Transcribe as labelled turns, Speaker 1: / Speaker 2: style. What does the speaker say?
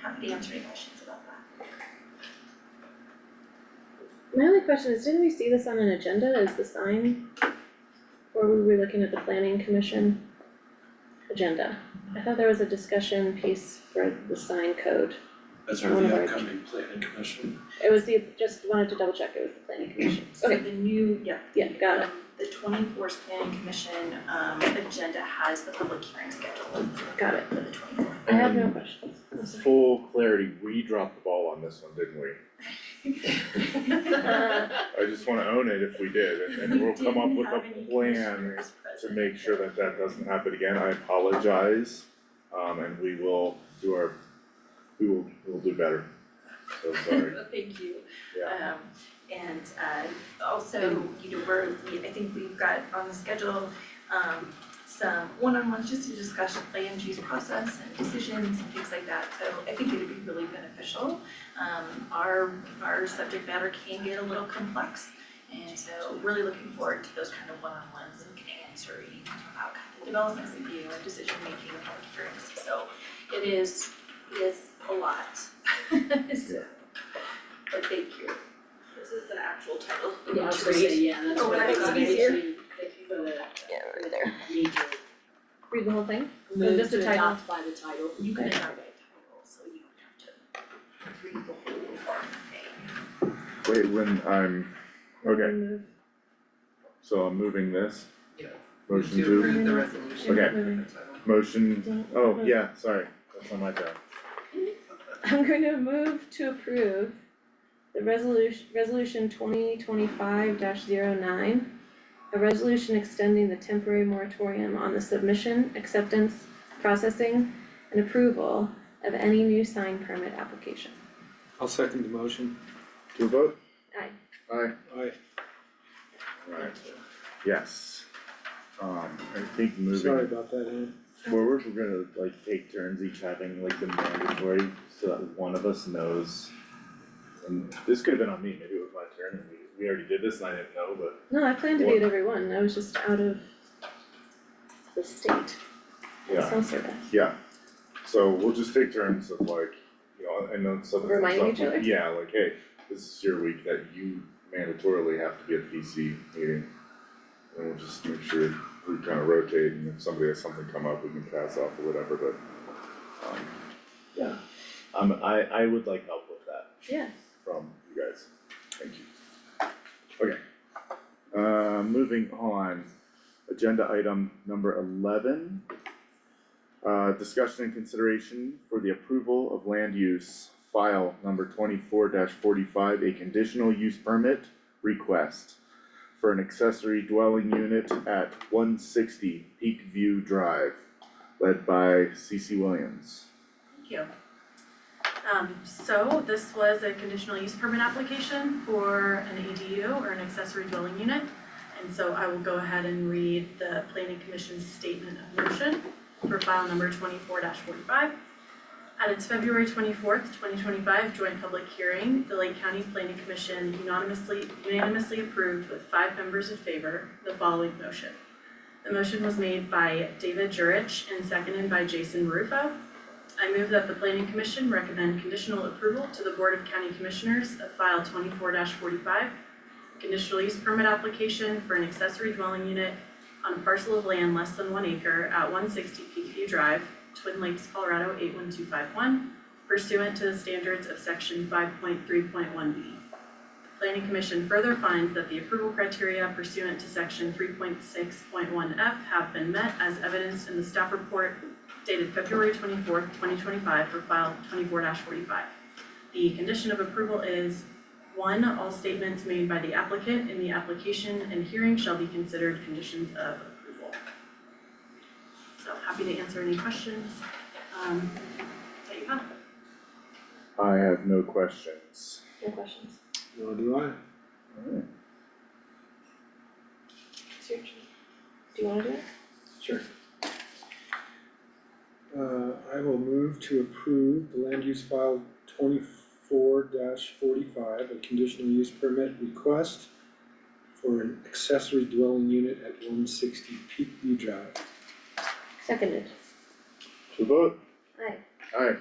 Speaker 1: happy to answer any questions about that.
Speaker 2: My only question is, didn't we see this on an agenda as the sign? Or were we looking at the planning commission agenda? I thought there was a discussion piece for the sign code.
Speaker 3: As are
Speaker 2: One of
Speaker 3: the
Speaker 2: our-
Speaker 3: upcoming planning commission.
Speaker 2: It was the, just wanted to double check it was the planning commission.
Speaker 1: So
Speaker 2: Okay.
Speaker 1: the new, yeah.
Speaker 2: Yeah, got it.
Speaker 1: um, The twenty-fourth planning commission um agenda has the public hearing scheduled
Speaker 2: Got it.
Speaker 1: for the twenty-fourth.
Speaker 2: I have no questions.
Speaker 4: Full clarity, we dropped the ball on this one, didn't we?
Speaker 2: Uh,
Speaker 4: I just wanna own it if we did, and and we'll come up with a plan to make sure that that doesn't happen again, I apologize. Um, and we will do our, we will, we'll do better, so sorry,
Speaker 1: Thank you.
Speaker 4: yeah.
Speaker 1: Um, and, uh, also, you know, we're, we, I think we've got on the schedule, um, some one-on-ones just to discuss the land use process and decisions and things like that. So I think it'd be really beneficial. Um, our, our subject matter can get a little complex. And so really looking forward to those kind of one-on-ones and can answer any about kind of development review and decision-making and public hearings. So it is, it is a lot. So, But thank you.
Speaker 5: This is the actual title.
Speaker 6: Yeah, I was gonna say, yeah, that's
Speaker 1: Oh,
Speaker 6: what I
Speaker 1: that's
Speaker 6: thought,
Speaker 1: easier.
Speaker 6: if you, if you go to. Yeah, right there. Major.
Speaker 2: Read the whole thing?
Speaker 6: Move
Speaker 2: just the
Speaker 6: to
Speaker 2: title.
Speaker 6: adopt by the title.
Speaker 1: You can adopt by title, so you don't have to read the whole thing.
Speaker 4: Wait, when I'm, okay,
Speaker 2: Remove-
Speaker 4: so I'm moving this.
Speaker 7: Yeah.
Speaker 4: Motion to,
Speaker 7: approve the resolution.
Speaker 4: Okay.
Speaker 7: with the title.
Speaker 4: motion,
Speaker 2: don't-
Speaker 4: oh, yeah, sorry, that's on my job.
Speaker 2: I'm going to move to approve the resolution, resolution twenty twenty-five 9 A resolution extending the temporary moratorium on the submission, acceptance, processing, and approval of any new sign permit application.
Speaker 3: I'll second the motion.
Speaker 4: To a vote?
Speaker 2: Aye.
Speaker 4: Aye.
Speaker 3: Aye.
Speaker 4: Alright, yes. Um, I think
Speaker 3: Sorry
Speaker 4: moving
Speaker 3: about that, Ann.
Speaker 4: forward, we're gonna like take turns each having like the mandatory, so that one of us knows. And this could have been on me, maybe it was my turn, and we, we already did this and I didn't know, but
Speaker 2: No, I planned to do it every one, I was just out of the state, it's
Speaker 4: yeah,
Speaker 2: no survey.
Speaker 4: yeah. So we'll just take turns of like, you know, and then something comes
Speaker 2: Reminding
Speaker 4: up,
Speaker 2: each other?
Speaker 4: like, yeah, like, hey, this is your week that you mandatorily have to be at PC meeting. And we'll just make sure we kind of rotate and if somebody has something come up, we can pass off or whatever, but, um, yeah. Um, I, I would like help with that.
Speaker 2: Yeah,
Speaker 4: from you guys. Thank you. Okay. Uh, moving on, agenda item number eleven. Uh, discussion and consideration for the approval of land use file number twenty-four forty-five, a conditional use permit request for an accessory dwelling unit at one sixty Peak View Drive, led by CC Williams.
Speaker 5: Thank you. Um, so this was a conditional use permit application for an ADU or an accessory dwelling unit. And so I will go ahead and read the planning commission's statement of motion for file number twenty-four forty-five. At its February twenty-fourth, twenty twenty-five joint public hearing, the Lake County Planning Commission unanimously unanimously approved with five members in favor the following motion. The motion was made by David Jurich and seconded by Jason Rufo. I move that the planning commission recommend conditional approval to the Board of County Commissioners of file twenty-four forty-five. Conditional use permit application for an accessory dwelling unit on a parcel of land less than one acre at one sixty Peakview Drive, Twin Lakes, Colorado eight one two five one, pursuant to the standards of section five point three point one B. The planning commission further finds that the approval criteria pursuant to section three point six point one F have been met as evidenced in the staff report dated February twenty-fourth, twenty twenty-five for file twenty-four forty-five. The condition of approval is, one, all statements made by the applicant in the application and hearing shall be considered conditions of approval. So happy to answer any questions, um, that you have.
Speaker 4: I have no questions.
Speaker 2: no questions.
Speaker 3: Nor do I.
Speaker 4: Alright,
Speaker 2: It's your turn. Do you wanna do it?
Speaker 3: Sure. Uh, I will move to approve the land use file twenty-four forty-five, a conditional use permit request for an accessory dwelling unit at one sixty Peakview Drive.
Speaker 2: Seconded.
Speaker 4: to vote?
Speaker 2: Aye.
Speaker 4: Aye.